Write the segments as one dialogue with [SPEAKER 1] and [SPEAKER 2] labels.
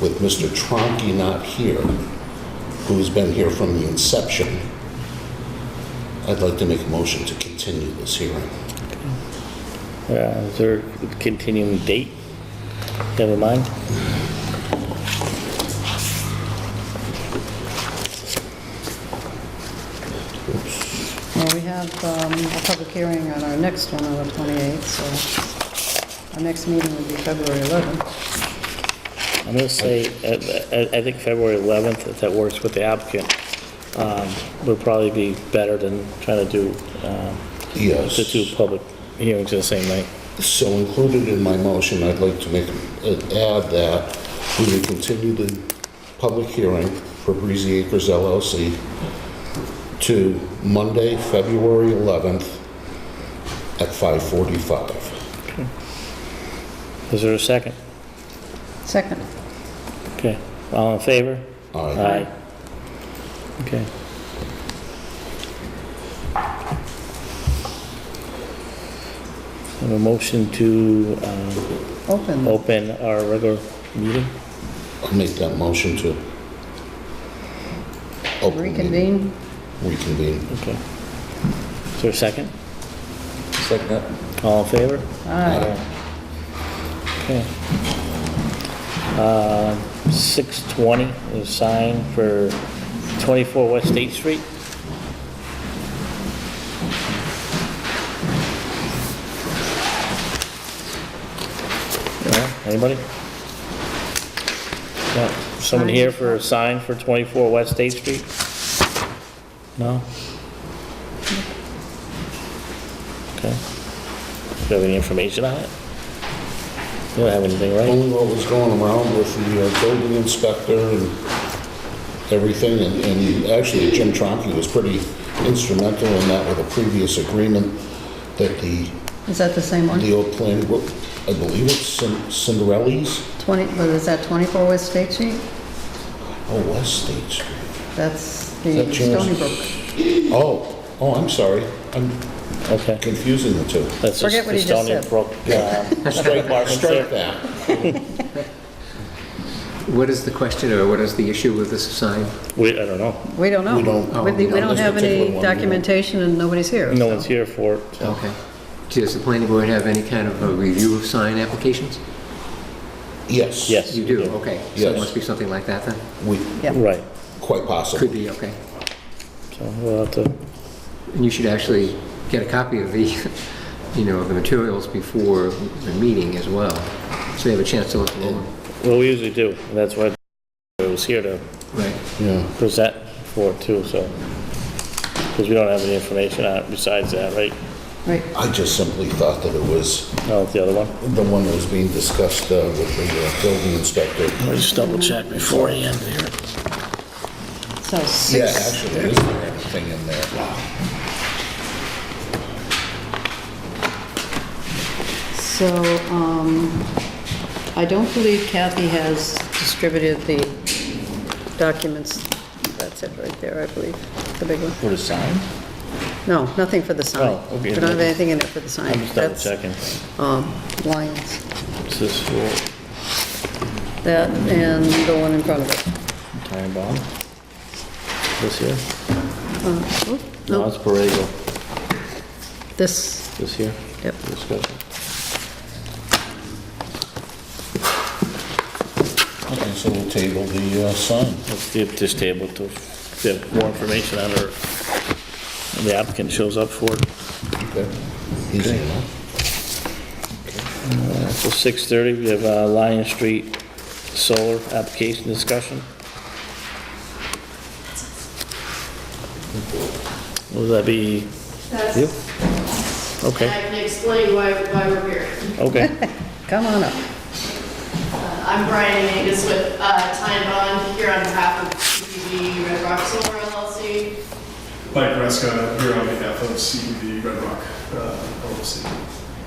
[SPEAKER 1] with Mr. Tronky not here, who's been here from the inception, I'd like to make a motion to continue this hearing.
[SPEAKER 2] Uh, Is there a continuing date? Never mind.
[SPEAKER 3] Well, we have um, a public hearing on our next one on the 28th, so our next meeting would be February 11th.
[SPEAKER 2] I'm going to say, uh, I I think February 11th, if that works with the applicant, um, would probably be better than trying to do um,
[SPEAKER 1] Yes.
[SPEAKER 2] the two public hearings the same night.
[SPEAKER 1] So included in my motion, I'd like to make, uh, add that we will continue the public hearing for Breezy Acres LLC to Monday, February 11th at 5:45.
[SPEAKER 2] Is there a second?
[SPEAKER 3] Second.
[SPEAKER 2] Okay, all in favor?
[SPEAKER 1] Aye.
[SPEAKER 2] Okay. Have a motion to um,
[SPEAKER 3] Open.
[SPEAKER 2] open our regular meeting?
[SPEAKER 1] I'll make that motion to open the meeting.
[SPEAKER 3] Reconvene.
[SPEAKER 1] Reconvene.
[SPEAKER 2] Okay. Is there a second?
[SPEAKER 1] Second.
[SPEAKER 2] All in favor?
[SPEAKER 3] Aye.
[SPEAKER 2] Okay. Uh, 620 is signed for 24 West State Street. Yeah, Anybody? Yeah, Someone here for a sign for 24 West State Street? No? Okay. Do you have any information on it? You don't have anything, right?
[SPEAKER 1] Only what was going around with the uh, building inspector and everything, and- and actually Jim Tronky was pretty instrumental in that with a previous agreement that the,
[SPEAKER 3] Is that the same one?
[SPEAKER 1] the old plan, I believe it's Cin- Cinderelli's,
[SPEAKER 3] 20, but is that 24 West State Street?
[SPEAKER 1] oh, West State Street.
[SPEAKER 3] That's
[SPEAKER 1] Is
[SPEAKER 3] the
[SPEAKER 1] that yours?
[SPEAKER 3] Stony Brook.
[SPEAKER 1] Oh, oh, I'm sorry, I'm
[SPEAKER 2] Okay.
[SPEAKER 1] confusing the two.
[SPEAKER 2] That's
[SPEAKER 3] Forget what
[SPEAKER 2] the
[SPEAKER 3] he just
[SPEAKER 2] Stony
[SPEAKER 3] said.
[SPEAKER 2] Brook, um, Street Department,
[SPEAKER 1] Strike
[SPEAKER 2] sir.
[SPEAKER 1] that.
[SPEAKER 4] What is the question, or what is the issue with this sign?
[SPEAKER 2] We, I don't know.
[SPEAKER 3] We don't know.
[SPEAKER 1] We don't-
[SPEAKER 3] We-
[SPEAKER 4] Oh,
[SPEAKER 3] We
[SPEAKER 4] no,
[SPEAKER 3] don't
[SPEAKER 1] this particular
[SPEAKER 3] have
[SPEAKER 1] one,
[SPEAKER 3] any
[SPEAKER 1] we don't.
[SPEAKER 3] documentation and nobody's here.
[SPEAKER 2] No
[SPEAKER 3] so.
[SPEAKER 2] one's here for it. so.
[SPEAKER 4] Okay. Does the planning board have any kind of a review of sign applications?
[SPEAKER 1] Yes.
[SPEAKER 2] Yes.
[SPEAKER 4] You do, okay. So
[SPEAKER 1] Yes.
[SPEAKER 4] it must be something like that, then?
[SPEAKER 1] We,
[SPEAKER 3] Yeah.
[SPEAKER 2] Right.
[SPEAKER 1] quite
[SPEAKER 4] Could
[SPEAKER 1] possible.
[SPEAKER 4] be, okay.
[SPEAKER 2] So we'll have to,
[SPEAKER 4] And you should actually get a copy of the, you know, of the materials before the meeting as well, so you have a chance to look them over.
[SPEAKER 2] well, we usually do. and That's why I was here to
[SPEAKER 4] Right.
[SPEAKER 1] Yeah.
[SPEAKER 2] present for it too, so. Because we don't have any information on it besides that, right?
[SPEAKER 3] Right.
[SPEAKER 1] I just simply thought that it was
[SPEAKER 2] No, it's the other one.
[SPEAKER 1] the one that was being discussed uh, with the uh, building inspector.
[SPEAKER 2] Let's just double check beforehand here.
[SPEAKER 3] So
[SPEAKER 1] Yeah,
[SPEAKER 3] six,
[SPEAKER 1] actually, there is anything in there.
[SPEAKER 3] so um, I don't believe Kathy has distributed the documents. That's it right there, I believe, the big one.
[SPEAKER 2] For the sign?
[SPEAKER 3] No, nothing for the sign.
[SPEAKER 2] Oh, okay.
[SPEAKER 3] We don't have anything in it for the sign.
[SPEAKER 2] I'm just double checking.
[SPEAKER 3] That's um, Lyons,
[SPEAKER 2] Is this for
[SPEAKER 3] that and the one in front of it.
[SPEAKER 2] time bomb? This here?
[SPEAKER 3] Uh, oop,
[SPEAKER 2] No,
[SPEAKER 3] No,
[SPEAKER 2] it's Borrego.
[SPEAKER 3] this,
[SPEAKER 2] This here?
[SPEAKER 3] yep.
[SPEAKER 2] Discussion.
[SPEAKER 1] Okay, so we'll table the uh, sign.
[SPEAKER 2] Let's do this table to get more information on her, when the applicant shows up for it.
[SPEAKER 1] Okay. Easy enough.
[SPEAKER 2] So 6:30, we have uh, Lion Street Solar Application Discussion. Will that be you?
[SPEAKER 5] That's, I
[SPEAKER 2] Okay,
[SPEAKER 5] can explain why, why we're here.
[SPEAKER 2] okay.
[SPEAKER 3] Come on up.
[SPEAKER 5] Uh, I'm Brian Angus with uh, Time Bond here on behalf of CPG Red Rock Solar LLC.
[SPEAKER 6] Mike Rescott here on behalf of CBD Red Rock uh, LLC.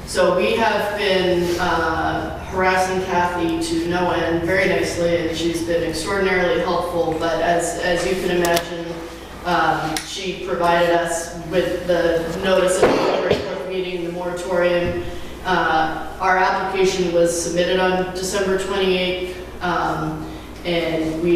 [SPEAKER 5] So we have been uh, harassing Kathy to no end very nicely, and she's been extraordinarily helpful. But as, as you can imagine, um, she provided us with the notice of the regular meeting, the moratorium. Uh, Our application was submitted on December 28th. um, and we